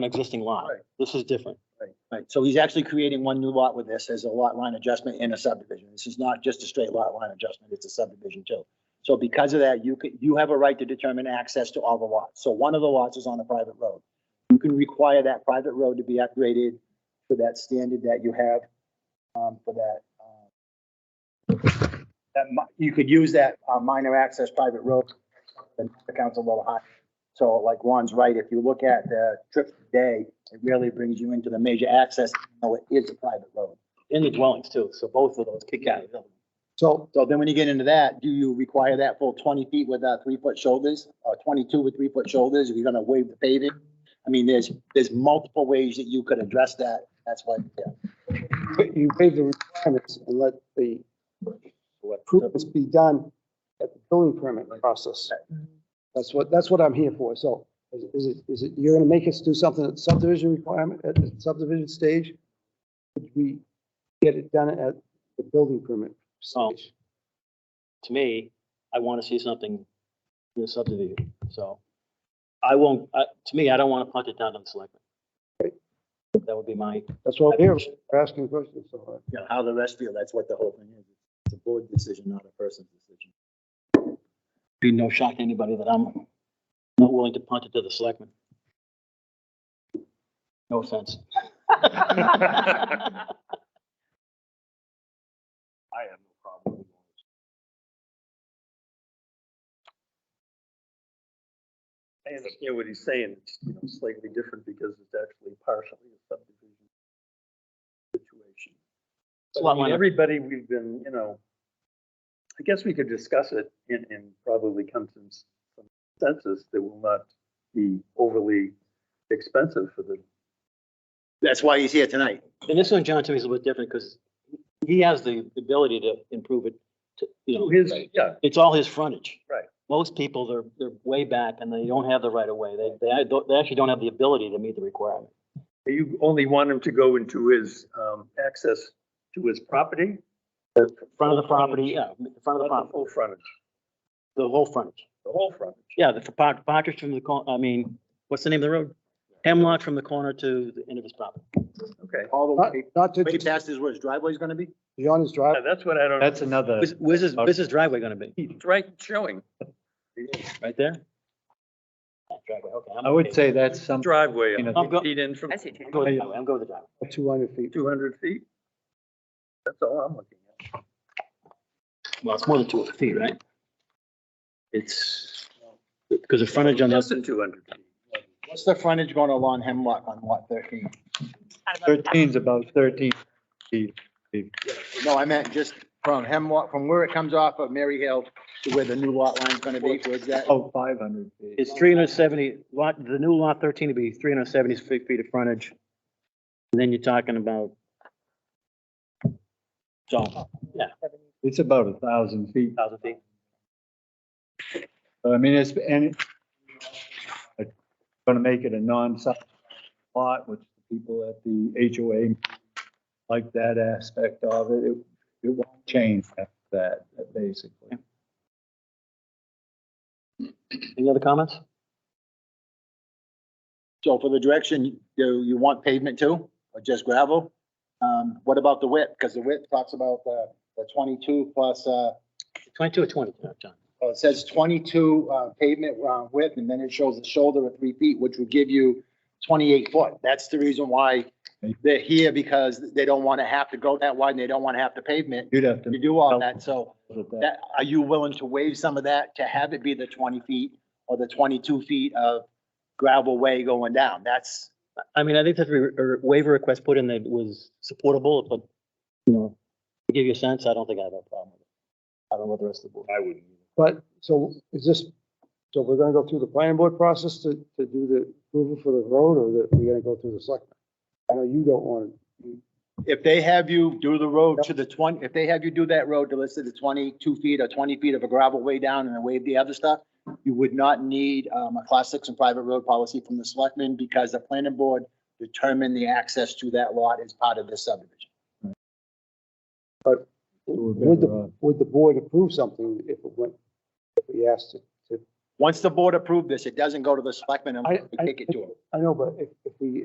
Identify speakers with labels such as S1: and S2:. S1: an existing lot.
S2: Right.
S1: This is different.
S2: Right, so he's actually creating one new lot with this as a lot line adjustment in a subdivision. This is not just a straight lot line adjustment, it's a subdivision too. So because of that, you could, you have a right to determine access to all the lots. So one of the lots is on a private road. You can require that private road to be upgraded to that standard that you have, um, for that. uh, That, mi- you could use that, uh, minor access private road, the council level high. So like Ron's right, if you look at the trip today, it really brings you into the major access, though it is a private road.
S1: In the
S3: Mm-hmm.
S1: dwellings too, so both of those kick out.
S4: So,
S2: So then when you get into that, do you require that full twenty feet with uh three foot shoulders or twenty-two with three foot shoulders? If you're gonna waive the paving? I mean, there's, there's multiple ways that you could address that. That's why, yeah.
S4: but you waive the requirements and let the improvements be done at the building permit process. That's what, that's what I'm here for. So is- is it, is it, you're gonna make us do something at subdivision requirement, at the subdivision stage? Could we get it done at the building permit
S1: Oh.
S4: stage?
S1: To me, I want to see something in the subdivision, so. I won't, uh, to me, I don't want to punt it down to the selectmen. That would be my,
S4: That's what I'm here, for. We're asking questions. so, uh,
S2: You know, how the rest feel, that's what the whole thing is. It's a board decision, not a person's decision.
S1: be no shock to anybody that I'm not willing to punt it to the selectmen. No offense.
S3: I have no problem with going I understand what he's saying, it's, you know, slightly different because it's actually partially a subdivision situation. But
S1: lot
S3: I mean,
S1: line of-
S3: Everybody, we've been, you know, I guess we could discuss it and, and probably come to some consensus that will not be overly expensive for the
S2: That's why he's here tonight.
S1: And this one, John, to me is a little different because he has the ability to improve it, to, you know.
S3: to his, yeah,
S1: It's all his frontage.
S3: Right.
S1: Most people, they're, they're way back and they don't have the right of way. They, they, don't- they actually don't have the ability to meet the requirement.
S3: You only want him to go into his, um, access to his property?
S1: Front of the property, yeah, front of the
S3: Not the
S1: property,
S3: full frontage,
S1: the whole frontage.
S3: the whole frontage.
S1: Yeah, the part- partridge from the, cor- I mean, what's the name of the road? Hemlock from the corner to the end of his property.
S3: Okay,
S5: Uh,
S2: All the
S4: Not,
S2: way,
S4: not to,
S2: way past is where his driveway's gonna be?
S4: beyond his
S3: Yeah,
S4: drive,
S3: that's what I don't.
S5: That's another,
S1: Where's, where's his, where's his driveway gonna be?
S3: He's right showing.
S1: Right there? Driveway, okay. I'm
S5: I would
S1: okay.
S5: say that's some,
S3: Driveway,
S5: Um, You know,
S1: I'll go-
S3: feet in from
S6: I see two.
S1: I'm going with the driveway, I'm going with the driveway.
S4: two hundred feet.
S3: two hundred feet. That's all I'm looking at.
S1: Well, it's more than two hundred feet, right? It's, because the frontage on the
S3: Less
S1: other
S3: than two hundred feet.
S2: What's the frontage going along Hemlock on lot thirteen?
S5: thirteen's about thirteen feet.
S2: No, I meant just from Hemlock, from where it comes off of Mary Hill to where the new lot line's gonna be, where's that?
S5: Oh, five hundred feet.
S1: It's three hundred seventy, lot, the new lot thirteen would be three hundred seventy feet of frontage. And then you're talking about. So, yeah,
S5: It's about a thousand feet.
S1: thousand feet.
S5: So, I mean, it's, and it's gonna make it a non-site lot, which the people at the HOA like that aspect of it. It, it won't change after that, basically.
S1: Any other comments?
S2: So for the direction, do you want pavement too, or just gravel? Um, what about the width? Because the width talks about the, the twenty-two plus, uh,
S1: Twenty-two or twenty, uh, John?
S2: oh, it says twenty-two, uh, pavement, uh, width, and then it shows the shoulder of three feet, which would give you twenty-eight foot. That's the reason why they're here, because they don't want to have to go that wide, and they don't want to have to pavement.
S5: You'd have to.
S2: You do all that, so.
S5: look at that.
S2: that, are you willing to waive some of that to have it be the twenty feet or the twenty-two feet of gravel way going down? That's,
S1: I mean, I think that the waiver request put in that was supportable, but, you know, to give you a sense, I don't think I have a problem with it. I don't know what the rest of the board.
S3: I wouldn't.
S4: But, so is this, so we're gonna go through the planning board process to, to do the approval for the road, or that we're gonna go through the selectmen? I know you don't want,
S2: if they have you do the road to the twenty, if they have you do that road to let's say the twenty-two feet or twenty feet of a gravel way down and then waive the other stuff, you would not need, um, a class six and private road policy from the selectmen because the planning board determined the access to that lot as part of this subdivision.
S5: We're
S4: would
S5: better off.
S4: the, would the board approve something if it went, if we asked it?
S2: Once the board approved this, it doesn't go to the selectmen and
S4: I-
S2: we
S4: I-
S2: kick it to them.
S4: I know, but if, if we